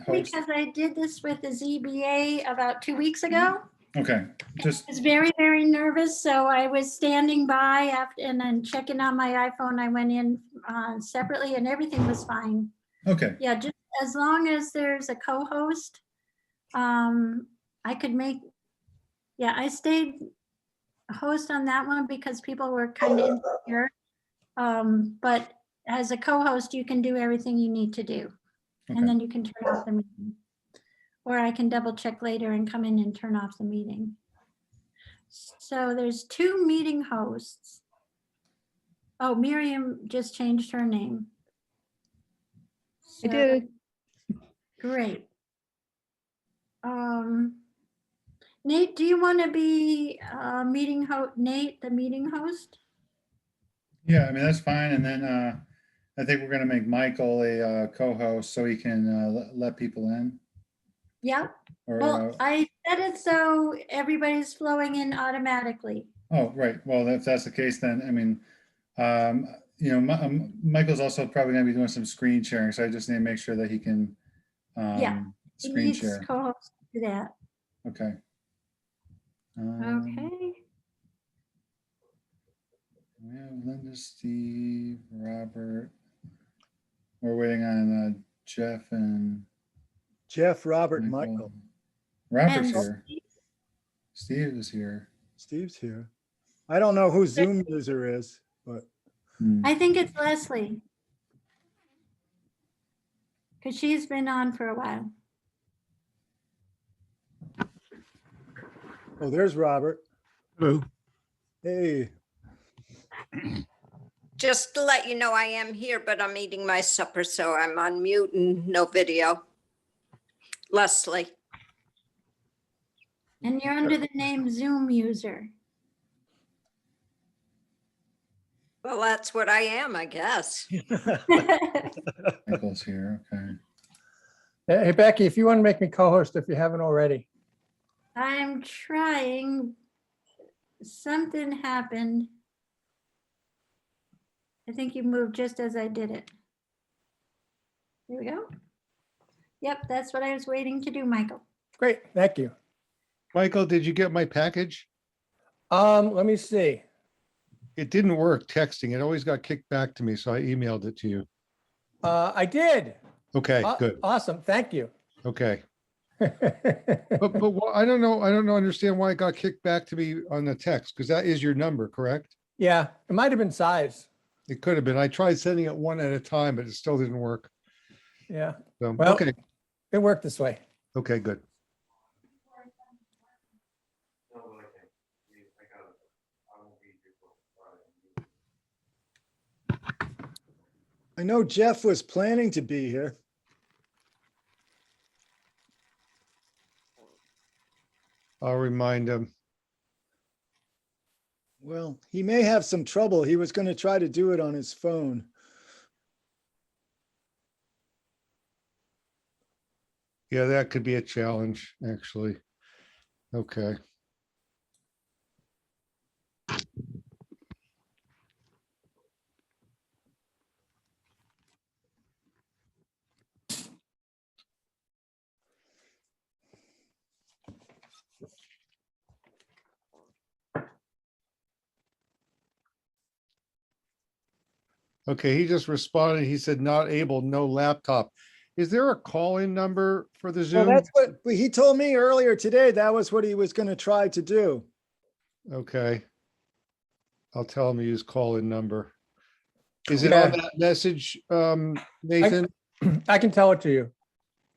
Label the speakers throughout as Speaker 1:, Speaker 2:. Speaker 1: host.
Speaker 2: because I did this with the ZBA about two weeks ago.
Speaker 1: Okay, just,
Speaker 2: I was very, very nervous, so I was standing by after, and then checking on my iPhone. I went in uh, separately and everything was fine.
Speaker 1: okay,
Speaker 2: Yeah, just as long as there's a co-host, um, I could make, yeah, I stayed host on that one because people were kind of insecure. Um, but as a co-host, you can do everything you need to do.
Speaker 1: Okay.
Speaker 2: And then you can turn off the meeting. Or I can double check later and come in and turn off the meeting. So there's two meeting hosts. Oh, Miriam just changed her name.
Speaker 3: I
Speaker 2: So-
Speaker 3: did.
Speaker 2: Great. Um, Nate, do you want to be uh, meeting ho, Nate, the meeting host?
Speaker 1: yeah, I mean, that's fine. And then uh, I think we're gonna make Michael a uh, co-host so he can uh, le- let people in.
Speaker 2: Yeah,
Speaker 1: Or, uh,
Speaker 2: well, I said it so everybody's flowing in automatically.
Speaker 1: oh, right, well, if that's the case, then, I mean, um, you know, Mi- um, Michael's also probably gonna be doing some screen sharing, so I just need to make sure that he can
Speaker 2: Yeah.
Speaker 1: um,
Speaker 2: He
Speaker 1: screen
Speaker 2: needs
Speaker 1: share,
Speaker 2: Co-host to do that,
Speaker 1: okay. Um,
Speaker 2: okay?
Speaker 1: We have Linda, Steve, Robert. We're waiting on uh, Jeff and
Speaker 4: Jeff, Robert, and
Speaker 1: Michael.
Speaker 4: Michael.
Speaker 1: Robert's
Speaker 2: And-
Speaker 1: here. Steve is here.
Speaker 4: Steve's here. I don't know who
Speaker 2: There-
Speaker 4: Zoom user is, but
Speaker 1: Hmm,
Speaker 2: I think it's Leslie. Because she's been on for a while.
Speaker 4: oh, there's Robert.
Speaker 5: Hello.
Speaker 4: Hey,
Speaker 6: Just to let you know, I am here, but I'm eating my supper, so I'm on mute and no video. Leslie,
Speaker 2: And you're under the name Zoom user.
Speaker 6: well, that's what I am, I guess.
Speaker 1: Michael's here, okay.
Speaker 7: Uh, Hey hey, Becky, if you want to make me co-host, if you haven't already,
Speaker 2: I'm trying. Something happened. I think you moved just as I did it. There we go. Yep, that's what I was waiting to do, Michael.
Speaker 7: great, thank you.
Speaker 5: Michael, did you get my package?
Speaker 7: Um, let me see.
Speaker 5: It didn't work texting. It always got kicked back to me, so I emailed it to you.
Speaker 7: Uh, I did.
Speaker 5: Okay,
Speaker 7: Aw-
Speaker 5: good.
Speaker 7: Awesome, thank you.
Speaker 5: Okay. But,
Speaker 7: It
Speaker 5: but wh- I don't know, I don't know, understand why it got kicked back to me on the text, because that is your number, correct?
Speaker 7: Yeah, it might have been size.
Speaker 5: It could have been. I tried sending it one at a time, but it still didn't work.
Speaker 7: Yeah,
Speaker 5: So,
Speaker 7: Well-
Speaker 5: okay,
Speaker 7: it worked this way.
Speaker 5: okay, good.
Speaker 4: I know Jeff was planning to be here.
Speaker 5: I'll remind him.
Speaker 4: Well, he may have some trouble. He was going to try to do it on his phone.
Speaker 5: Yeah, that could be a challenge, actually. Okay. Okay, he just responded. He said, not able, no laptop. Is there a call-in number for the
Speaker 4: Well,
Speaker 5: Zoom?
Speaker 4: that's what but he told me earlier today. That was what he was going to try to do.
Speaker 5: Okay. I'll tell him to use call-in number. Is it on
Speaker 7: Yeah.
Speaker 5: that message, um, Nathan?
Speaker 7: I can tell it to you.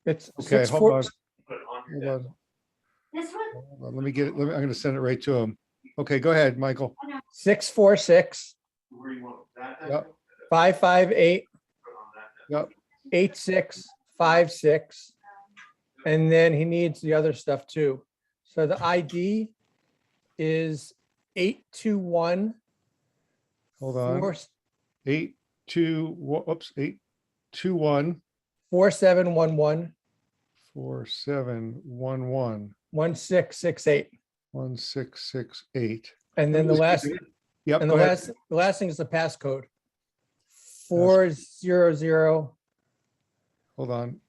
Speaker 7: It's
Speaker 5: Okay,
Speaker 7: six
Speaker 5: hold
Speaker 7: four,
Speaker 5: on. Hold on,
Speaker 2: This one?
Speaker 5: hold on, Let me get it, let me, I'm gonna send it right to him. Okay, go ahead, Michael.
Speaker 7: six, four, six,
Speaker 5: Yep,
Speaker 7: five, five, eight.
Speaker 5: Yep.
Speaker 7: Eight, six, five, six. And then he needs the other stuff too. So the ID is eight, two, one,
Speaker 5: Hold
Speaker 7: four,
Speaker 5: on. Eight, two, wha- whoops, eight, two, one,
Speaker 7: four, seven, one, one,
Speaker 5: four, seven, one, one,
Speaker 7: one, six, six, eight.
Speaker 5: one, six, six, eight.
Speaker 7: And then the last,
Speaker 5: Yep,
Speaker 7: and the
Speaker 5: go ahead.
Speaker 7: last, the last thing is the passcode. Four, zero, zero,
Speaker 5: Hold on.